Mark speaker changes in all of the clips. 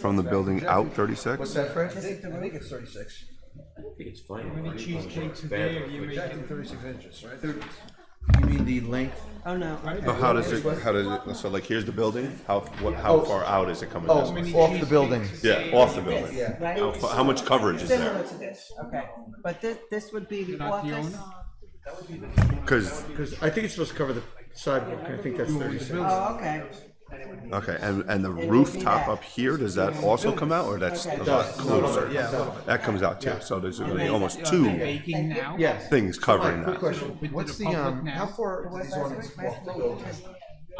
Speaker 1: From the building out 36?
Speaker 2: What's that, Fred?
Speaker 3: I think the roof-
Speaker 2: I think it's thirty-six.
Speaker 4: It's fine.
Speaker 3: How many cheesecakes a day are you
Speaker 2: I think
Speaker 3: making?
Speaker 2: thirty-six inches, right?
Speaker 4: You mean the length?
Speaker 3: Oh, no. I-
Speaker 1: So how does it, how does it, so like here's the building, how, what, how far out is it coming
Speaker 2: Oh,
Speaker 1: this way?
Speaker 2: off the building.
Speaker 1: Yeah, off the building.
Speaker 2: Oh, Yeah.
Speaker 3: Right?
Speaker 1: How, fa- how much coverage is
Speaker 3: Similar
Speaker 1: there?
Speaker 3: to this, okay. But this, this would be the
Speaker 5: Not the
Speaker 3: office.
Speaker 5: owner?
Speaker 1: Cause,
Speaker 2: Because I think it's supposed to cover the sidewalk, I think that's thirty-six.
Speaker 3: Oh, okay.
Speaker 1: okay, and, and the
Speaker 3: be
Speaker 1: rooftop
Speaker 3: that.
Speaker 1: up here, does that also come out or that's a
Speaker 3: Okay.
Speaker 1: lot
Speaker 2: A little bit,
Speaker 1: closer?
Speaker 2: Yeah, a little bit.
Speaker 1: That comes out too, so there's really almost
Speaker 5: Are they
Speaker 1: two
Speaker 5: Baking now?
Speaker 2: Yes.
Speaker 1: things covering
Speaker 2: Quick
Speaker 1: that.
Speaker 2: question,
Speaker 5: Did
Speaker 2: what's the,
Speaker 5: the public
Speaker 2: um,
Speaker 5: now-
Speaker 2: how far do these awnings walk to go?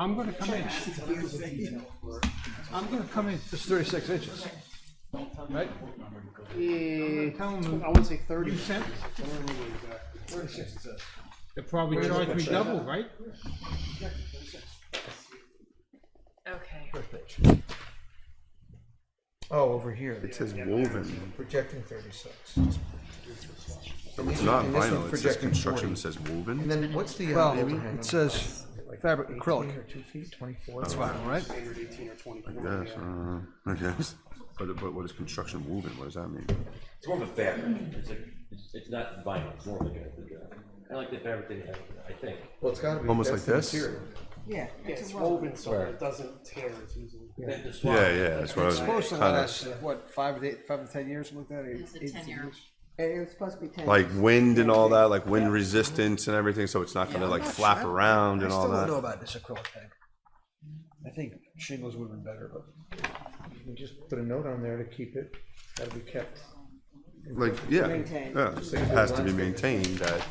Speaker 5: I'm gonna come in. I'm gonna come in.
Speaker 2: It's thirty-six inches. Right?
Speaker 5: Tell them
Speaker 6: I would say thirty.
Speaker 5: you sent,
Speaker 6: I don't remember exactly.
Speaker 2: Thirty-six, it says.
Speaker 5: they probably charge me double, right?
Speaker 7: Okay.
Speaker 2: First page. Oh, over here,
Speaker 1: It says woven,
Speaker 2: projecting thirty-six.
Speaker 1: so it's not
Speaker 2: And this
Speaker 1: vinyl,
Speaker 2: one's
Speaker 1: it says
Speaker 2: projecting
Speaker 1: construction,
Speaker 2: 40.
Speaker 1: it says
Speaker 2: And
Speaker 1: woven.
Speaker 2: then what's the uh,
Speaker 3: Well,
Speaker 2: overhang?
Speaker 3: it says fabric acrylic.
Speaker 2: Two feet, twenty-four?
Speaker 3: right?
Speaker 6: Eight or eighteen or twenty-four.
Speaker 1: Yes, uh, I guess. But, but what is construction woven, what does that mean?
Speaker 4: It's more of a fabric. It's like, it's, it's not vinyl, it's more of like a, I like the fabric they have, I think.
Speaker 2: Well, it's gotta be.
Speaker 1: Almost
Speaker 2: that's
Speaker 1: like
Speaker 2: the
Speaker 1: this?
Speaker 2: material.
Speaker 3: Yeah.
Speaker 6: Yeah, it's woven, so it doesn't tear as easily.
Speaker 4: Then the
Speaker 1: Yeah,
Speaker 4: swap.
Speaker 1: yeah, that's what I was
Speaker 8: Supposed to
Speaker 1: kinda,
Speaker 2: uh,
Speaker 8: last, what, five to eight, five to ten years, something like that?
Speaker 7: It's a ten-year.
Speaker 3: It was supposed to be ten.
Speaker 1: like wind and all that, like wind resistance and everything, so it's not gonna like flap around
Speaker 2: I
Speaker 1: and all
Speaker 2: still don't know
Speaker 1: that.
Speaker 2: about this acrylic thing. I think shingles would have been better, but you can just put a note on there to keep it, that'll be kept.
Speaker 1: Like, yeah,
Speaker 3: Maintained.
Speaker 1: yeah, it has to be maintained that,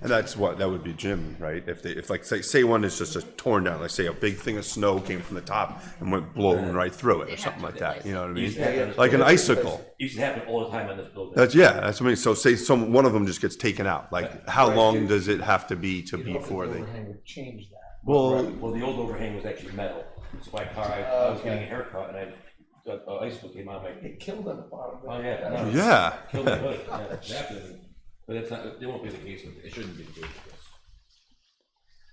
Speaker 1: and that's what, that would be Jim, right? If they, if like, say, say one is just a torn down, like say a big thing of snow came from the top and went blowing right through it or
Speaker 7: have
Speaker 1: something
Speaker 7: to
Speaker 1: like that,
Speaker 7: replace
Speaker 1: you know what I
Speaker 4: Yeah, yeah.
Speaker 1: mean? Like an icicle.
Speaker 4: Used to happen all the time on this building.
Speaker 1: That's, yeah, that's what I mean. So say some, one of them just gets taken out, like how long does it have to be to be for the?
Speaker 2: Overhang would change that.
Speaker 4: Well,
Speaker 1: Well,
Speaker 4: well, the old overhang was actually metal. So my car, I, I was getting a haircut and I, uh, uh, icicle came out of my,
Speaker 2: It killed on the bottom.
Speaker 4: oh, yeah. no, it's-
Speaker 1: yeah,
Speaker 4: Killed my hood. Yeah, it happened. But that's not, it won't be the case with, it shouldn't be the case with this.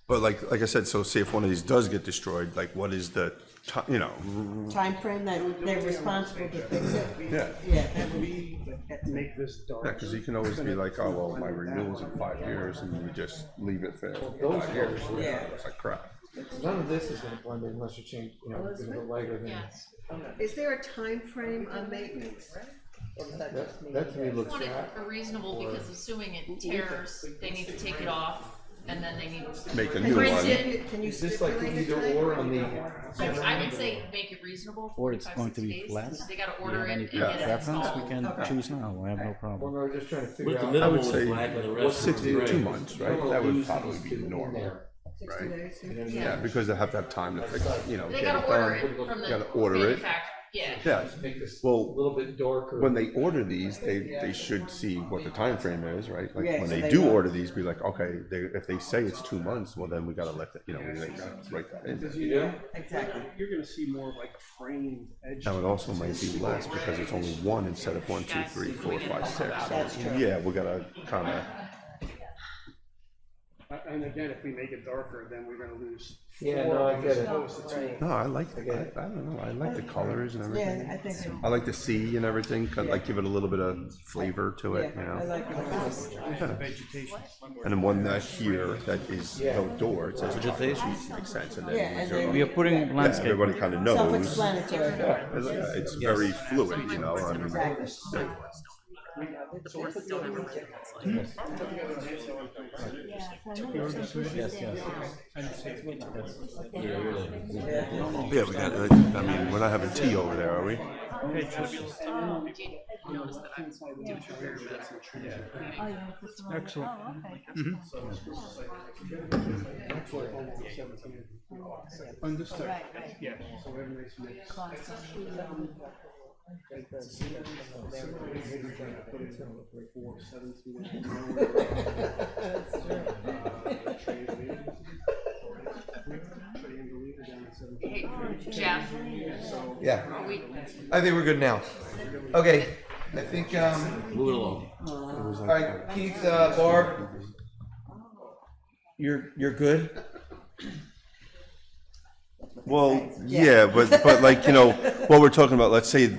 Speaker 1: but like, like I said, so say if one of these does get destroyed, like what is the, ti- you know,
Speaker 3: Timeframe that they're responsible to fix it.
Speaker 1: yeah.
Speaker 3: Yeah. that would be-
Speaker 6: Make this dark.
Speaker 1: Yeah, because you can always be like, oh, well, my renewal's in five years, and you just leave it there.
Speaker 2: Those
Speaker 1: Five years,
Speaker 3: Yeah.
Speaker 1: it's like crap.
Speaker 2: None of this is gonna blend in unless you change, you know, it's a little lighter than,
Speaker 7: Yes.
Speaker 3: Is there a time frame on maintenance? Or does that just
Speaker 2: that,
Speaker 3: mean-
Speaker 2: that to me looks
Speaker 7: Want it
Speaker 2: bad.
Speaker 7: reasonable because assuming it tears, they need to take it off and then they need to.
Speaker 1: Make a
Speaker 3: Can you
Speaker 1: new
Speaker 7: Print
Speaker 1: one.
Speaker 7: it.
Speaker 3: Can you
Speaker 2: Is this like
Speaker 3: stipulate
Speaker 2: the
Speaker 3: a
Speaker 2: either
Speaker 3: time
Speaker 2: or
Speaker 3: frame?
Speaker 2: on the?
Speaker 7: I I would say make it reasonable.
Speaker 8: Or it's
Speaker 7: five,
Speaker 8: going
Speaker 7: six
Speaker 8: to be
Speaker 7: days.
Speaker 8: flat.
Speaker 7: They gotta
Speaker 8: Do you
Speaker 7: order
Speaker 8: have any
Speaker 7: it and get it
Speaker 8: preference?
Speaker 7: installed.
Speaker 8: We can choose now, I have no
Speaker 2: Well,
Speaker 8: problem.
Speaker 2: no, I'm just trying to figure
Speaker 4: With
Speaker 2: out.
Speaker 4: the
Speaker 1: I
Speaker 4: middle
Speaker 1: would
Speaker 4: one
Speaker 1: say
Speaker 4: was black and the rest was
Speaker 1: Sixty to two
Speaker 4: gray.
Speaker 1: months, right? That would
Speaker 2: Loose
Speaker 1: probably
Speaker 2: is
Speaker 1: be
Speaker 2: getting in
Speaker 1: normal.
Speaker 2: there.
Speaker 3: Sixty days, yeah.
Speaker 1: Yeah, because they have to have time to fix, you know,
Speaker 7: They
Speaker 1: get it
Speaker 7: gotta order
Speaker 1: done.
Speaker 7: it from the
Speaker 1: Gotta order it.
Speaker 7: manufacturer, yeah.
Speaker 1: Yeah,
Speaker 2: Make this a
Speaker 1: well,
Speaker 2: little bit darker.
Speaker 1: when they order these, they, they should see what the time frame is, right? Like,
Speaker 3: Yeah,
Speaker 1: when
Speaker 3: so
Speaker 1: they
Speaker 3: they
Speaker 1: do
Speaker 3: know.
Speaker 1: order these, be like, okay, they, if they say it's two months, well, then we gotta let, the- you know, we gotta write that in. there.
Speaker 3: Exactly.
Speaker 6: You're gonna see more of like framed edges.
Speaker 1: Now, it also might be less because it's only one instead of one, two, three, four, five, six.
Speaker 3: That's
Speaker 1: So, Yeah, we gotta kinda,
Speaker 6: A- And again, if we make it darker, then we're gonna lose.
Speaker 2: Yeah,
Speaker 6: four
Speaker 2: no, I
Speaker 6: as
Speaker 2: get it.
Speaker 6: opposed to two.
Speaker 1: no, I like, the- I, I don't know, I like the colors and
Speaker 3: Yeah, I
Speaker 1: everything.
Speaker 3: think, so.
Speaker 1: I like the sea and everything, kind of like give it a little bit of flavor to it, you
Speaker 3: yeah, I
Speaker 1: know?
Speaker 3: like it.
Speaker 1: And then one that here that is no door, it says
Speaker 8: Vegetation.
Speaker 1: trees, makes sense, and
Speaker 3: Yeah,
Speaker 1: then
Speaker 3: and
Speaker 1: these are-
Speaker 3: then-
Speaker 8: We are putting
Speaker 1: yeah,
Speaker 8: landscape.
Speaker 1: everybody kinda knows.
Speaker 3: Self-explanatory.
Speaker 1: Yeah, It's uh, it's very fluid, you know, I mean,
Speaker 7: So we're still gonna look at this, like-
Speaker 1: yeah, we got, uh, I mean, we're not having tea over there, are we?
Speaker 7: Do you notice that I'm doing a fair bit?
Speaker 5: Excellent. Understood.
Speaker 6: Yeah, so everybody's mixed.
Speaker 7: Hey, Jeff,
Speaker 2: Yeah.
Speaker 7: are we,
Speaker 2: I think we're good now. Okay, I think, um,
Speaker 4: Move it along.
Speaker 2: all right, Keith, uh, Barb. You're, you're good?
Speaker 1: Well, yeah, but, but like, you know, what we're talking about, let's say